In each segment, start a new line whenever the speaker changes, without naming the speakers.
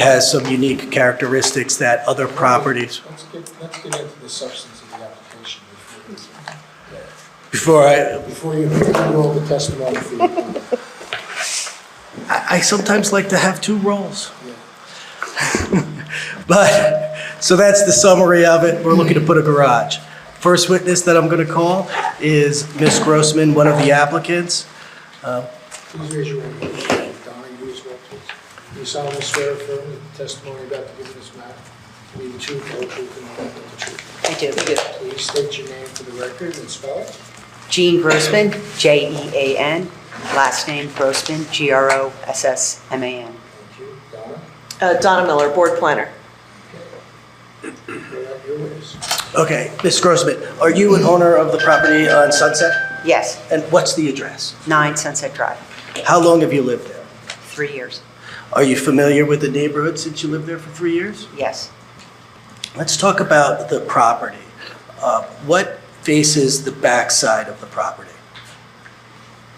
has some unique characteristics that other properties,
Let's get, let's get into the substance of the application before
before I,
before you roll the testimony for your client.
I I sometimes like to have two roles. But, so that's the summary of it. We're looking to put a garage. First witness that I'm going to call is Ms. Grossman, one of the applicants.
Please raise your right hand. Donnie, as well, please. Do you solemnly swear or affirm that the testimony about to give in this matter will be the truth, the whole truth, and nothing but the truth?
I do.
Please state your name for the record and spell it.
Jean Grossman, J-E-A-N, last name Grossman, G-R-O-S-S-M-A-N.
Thank you. Donna,
Uh, Donna Miller, Board Planner.
you're up, your witness.
Okay, Ms. Grossman, are you an owner of the property on Sunset?
Yes,
And what's the address?
9 Sunset Drive,
How long have you lived there?
three years.
Are you familiar with the neighborhood since you lived there for three years?
Yes.
Let's talk about the property. Uh, What faces the backside of the property?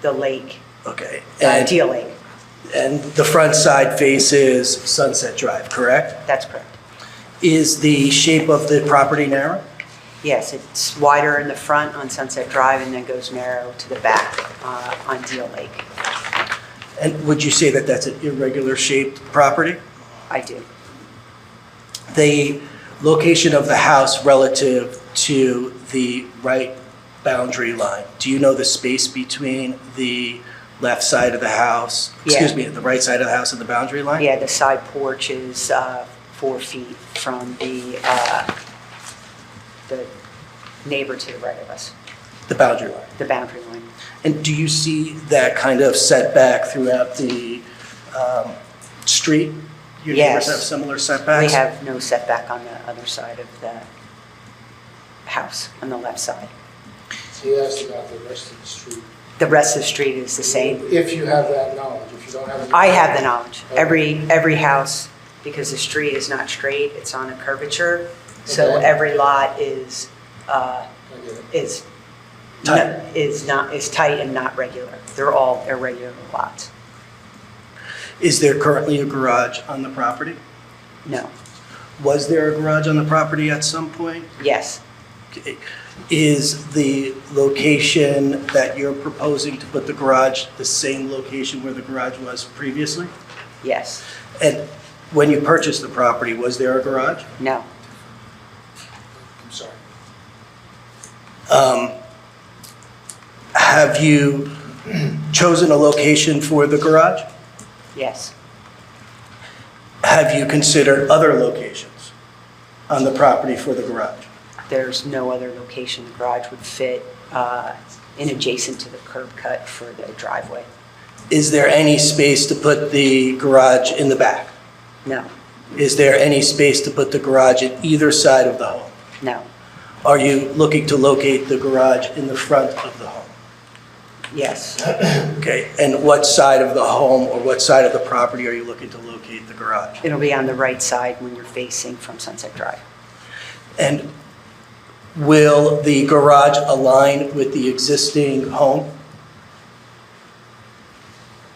The lake,
Okay.
uh,
and-
Deal Lake,
And the front side faces Sunset Drive, correct?
that's correct.
Is the shape of the property narrow?
Yes, it's wider in the front on Sunset Drive and then goes narrow to the back uh, on Deal Lake.
And would you say that that's an irregular shaped property?
I do.
The location of the house relative to the right boundary line, do you know the space between the left side of the house? Excuse
Yeah.
me, the right side of the house and the boundary line?
Yeah, the side porch is uh, four feet from the, uh, the neighbor to the right of us,
The boundary line.
the boundary line.
And do you see that kind of setback throughout the um, street? Your neighbors
Yes.
have similar
We
setbacks?
have no setback on the other side of the house, on the left side.
He asked about the rest of the street.
The rest of the street is the same.
If you have that knowledge, if you don't have it.
I have the knowledge, every, every house, because the street is not straight, it's on a curvature, so
Okay.
every lot is, uh,
I get it.
is, no-
Tight.
is not, is tight and not regular. They're all irregular lots.
Is there currently a garage on the property?
No,
Was there a garage on the property at some point?
yes,
Okay. Is the location that you're proposing to put the garage the same location where the garage was previously?
yes,
And when you purchased the property, was there a garage?
no,
I'm sorry.
Um, Have you chosen a location for the garage?
yes,
Have you considered other locations on the property for the garage?
there's no other location the garage would fit uh, in adjacent to the curb cut for the driveway.
Is there any space to put the garage in the back?
No,
Is there any space to put the garage at either side of the home?
no,
Are you looking to locate the garage in the front of the home?
yes,
Okay, and what side of the home or what side of the property are you looking to locate the garage?
it'll be on the right side when you're facing from Sunset Drive.
And will the garage align with the existing home?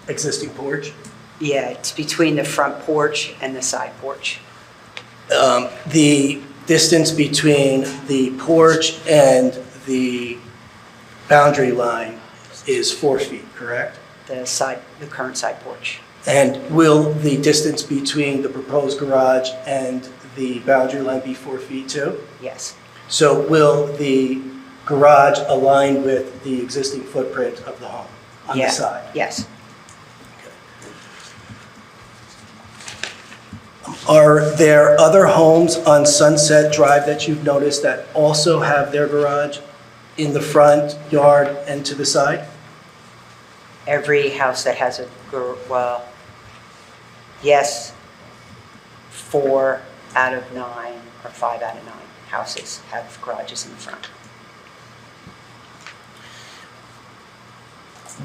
Existing porch?
Yeah, it's between the front porch and the side porch.
Um, The distance between the porch and the boundary line is four feet, correct?
The side, the current side porch.
And will the distance between the proposed garage and the boundary line be four feet too?
Yes,
So will the garage align with the existing footprint of the home on the
Yeah.
side?
yes,
Are there other homes on Sunset Drive that you've noticed that also have their garage in the front, yard, and to the side?
every house that has a, gar- well, yes, four out of nine or five out of nine houses have garages in the front.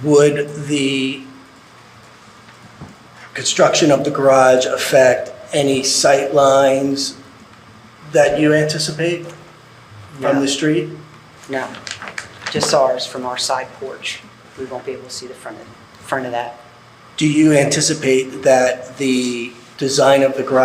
Would the construction of the garage affect any sight lines that you anticipate from
No.
the street?
No, just ours from our side porch. We won't be able to see the front of, front of that.
Do you anticipate that the design of the garage